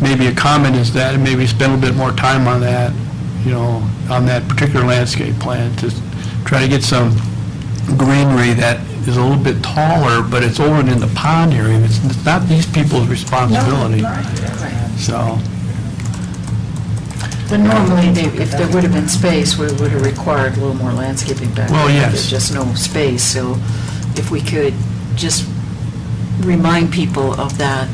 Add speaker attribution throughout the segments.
Speaker 1: maybe a comment is that, and maybe spend a little bit more time on that, you know, on that particular landscape plan, to try to get some greenery that is a little bit taller, but it's over in the pond area, it's it's not these people's responsibility, so.
Speaker 2: But normally, they- if there would have been space, we would have required a little more landscaping back there.
Speaker 1: Well, yes.
Speaker 2: There's just no space, so if we could just remind people of that,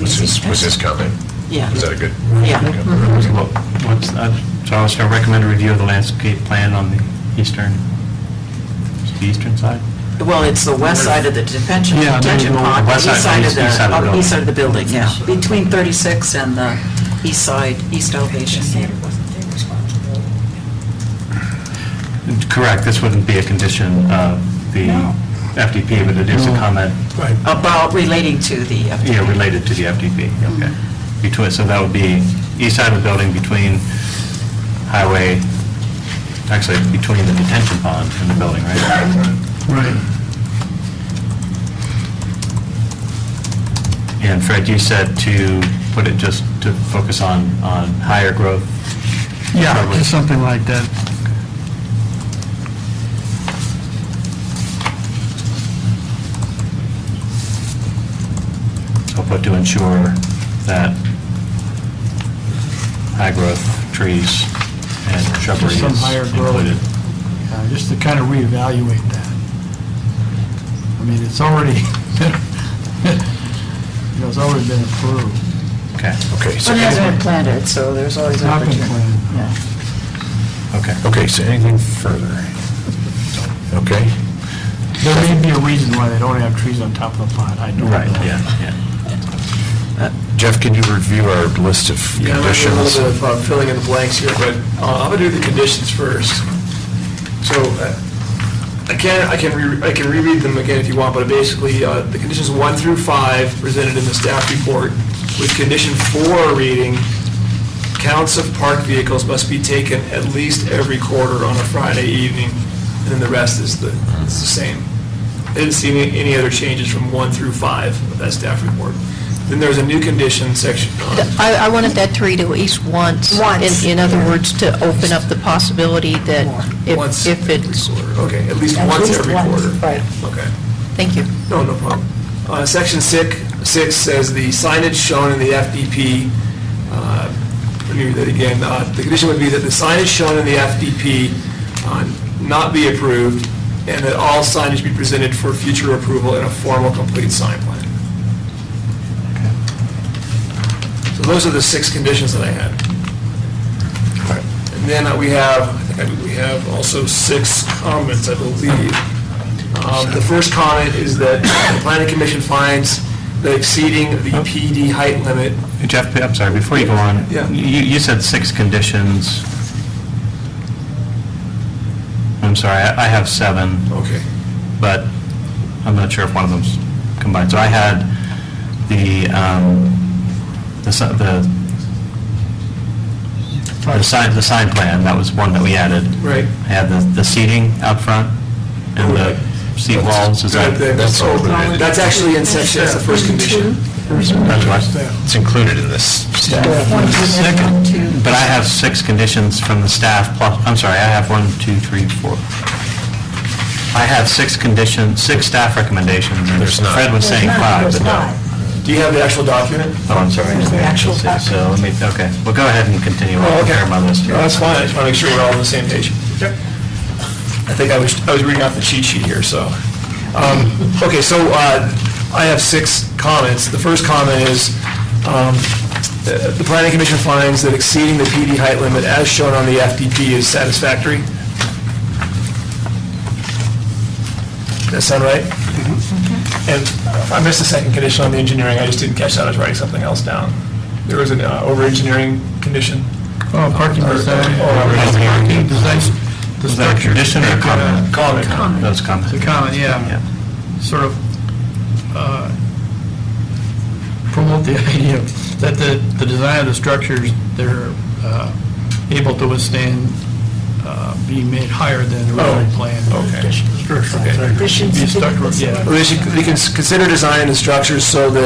Speaker 3: Was this, was this comment?
Speaker 2: yeah,
Speaker 3: Was that a good?
Speaker 2: yeah. Mhm.
Speaker 4: Well, what's- uh, So I was going to recommend a review of the landscape plan on the eastern, is it the eastern side?
Speaker 2: Well, it's the west side of the detention,
Speaker 1: Yeah, there's
Speaker 2: detention
Speaker 1: no-
Speaker 2: pond,
Speaker 4: west
Speaker 2: east
Speaker 4: side,
Speaker 2: side of
Speaker 4: east- east side of the
Speaker 2: the,
Speaker 4: building.
Speaker 2: east side of the building, yeah, between 36 and the east side, east elevation.
Speaker 4: Correct, this wouldn't be a condition of the
Speaker 2: No.
Speaker 4: FDP, but it is a
Speaker 1: No.
Speaker 4: comment,
Speaker 1: Right.
Speaker 2: About relating to the, uh,
Speaker 4: yeah, related to the FDP, okay. Between, so that would be east side of the building between highway, actually, between the detention pond and the building, right?
Speaker 1: Right.
Speaker 4: And Fred, you said to put it just to focus on, on higher growth.
Speaker 1: Yeah,
Speaker 4: Probably.
Speaker 1: just something like that.
Speaker 4: I'll put to ensure that high-growth trees and shrubbery
Speaker 1: Just some higher
Speaker 4: is
Speaker 1: growth.
Speaker 4: included.
Speaker 1: uh, just to kind of reevaluate that. I mean, it's already, you know, it's already been approved.
Speaker 4: Okay,
Speaker 3: Okay, so,
Speaker 2: But it hasn't been planted, so there's always
Speaker 1: Not been
Speaker 2: opportunity.
Speaker 1: planted.
Speaker 2: Yeah.
Speaker 4: okay.
Speaker 3: okay, so anything further? Okay,
Speaker 1: There may be a reason why they don't have trees on top of the pond, I don't know.
Speaker 4: Right, yeah, yeah.
Speaker 3: Uh, Jeff, can you review our list of
Speaker 5: Yeah, I'm having a
Speaker 3: conditions?
Speaker 5: little bit of uh, filling in the blanks here, but uh, I'm going to do the conditions first. So uh, again, I can, re- I can reread them again if you want, but basically, uh, the conditions one through five presented in the staff report, with condition four reading, counts of parked vehicles must be taken at least every quarter on a Friday evening, and then the rest is the, is the same. I didn't see any, any other changes from one through five of that staff report. Then there's a new condition section. uh,
Speaker 6: I, I wanted that to read at least once.
Speaker 7: Once.
Speaker 6: In, in other words, to open up the possibility that
Speaker 5: Once
Speaker 6: if, if it's,
Speaker 5: every quarter. Okay, at least
Speaker 7: At
Speaker 5: once
Speaker 7: least
Speaker 5: every
Speaker 7: once,
Speaker 5: quarter.
Speaker 7: right.
Speaker 5: Okay,
Speaker 6: thank you.
Speaker 5: no, no problem. Uh, Section six, six says the signage shown in the FDP, uh, let me read that again, Uh, the condition would be that the signage shown in the FDP uh, not be approved, and that all signage be presented for future approval in a formal complete sign plan. So those are the six conditions that I had. And then uh, we have, I think we have also six comments, I believe. Um, The first comment is that the planning commission finds that exceeding the PD height limit,
Speaker 4: Jeff, I'm sorry, before you go on,
Speaker 5: Yeah.
Speaker 4: you, you said six conditions. I'm sorry, I I have seven,
Speaker 5: okay,
Speaker 4: but I'm not sure if one of them's combined. So I had the, um, the, si- the, the sign, the sign plan, that was one that we added.
Speaker 5: right?
Speaker 4: I had the, the seating out front and the seat walls, is that?
Speaker 5: That-
Speaker 3: that's all that-
Speaker 5: That's actually in section, that's the first condition.
Speaker 4: that's what-
Speaker 3: It's included in this staff.
Speaker 2: Second.
Speaker 4: But I have six conditions from the staff plus, I'm sorry, I have one, two, three, four. I have six condition, six staff recommendations. and
Speaker 3: There's not.
Speaker 4: Fred was saying five, but no.
Speaker 5: Do you have the actual document?
Speaker 4: Oh, I'm sorry.
Speaker 7: There's the actual
Speaker 4: So let me, okay, well, go ahead and continue.
Speaker 5: Oh,
Speaker 4: I'll
Speaker 5: okay.
Speaker 4: prepare my list here.
Speaker 5: No, That's fine, I just want to make sure we're all on the same page. I think I was, I was reading off the cheat sheet here, so. Um, Okay, so uh, I have six comments. The first comment is, um, the the planning commission finds that exceeding the PD height limit as shown on the FDP is satisfactory. Does that sound right? And I missed the second condition on the engineering, I just didn't catch that, I was writing something else down. There was an uh, over-engineering condition?
Speaker 1: Oh, parking design.
Speaker 4: Parking
Speaker 1: Design, the
Speaker 4: Was that a
Speaker 1: structure.
Speaker 4: condition or a comment?
Speaker 5: Comment.
Speaker 4: Those comments.
Speaker 1: The comment, yeah,
Speaker 4: Yeah.
Speaker 1: sort of uh, promote the idea of- that the, the design of the structures, they're uh, able to withstand uh, being made higher than originally planned.
Speaker 5: Okay.
Speaker 1: Structural.
Speaker 5: Okay.
Speaker 1: Be a structural, yeah.
Speaker 5: They should, they can s- consider designing the structures so that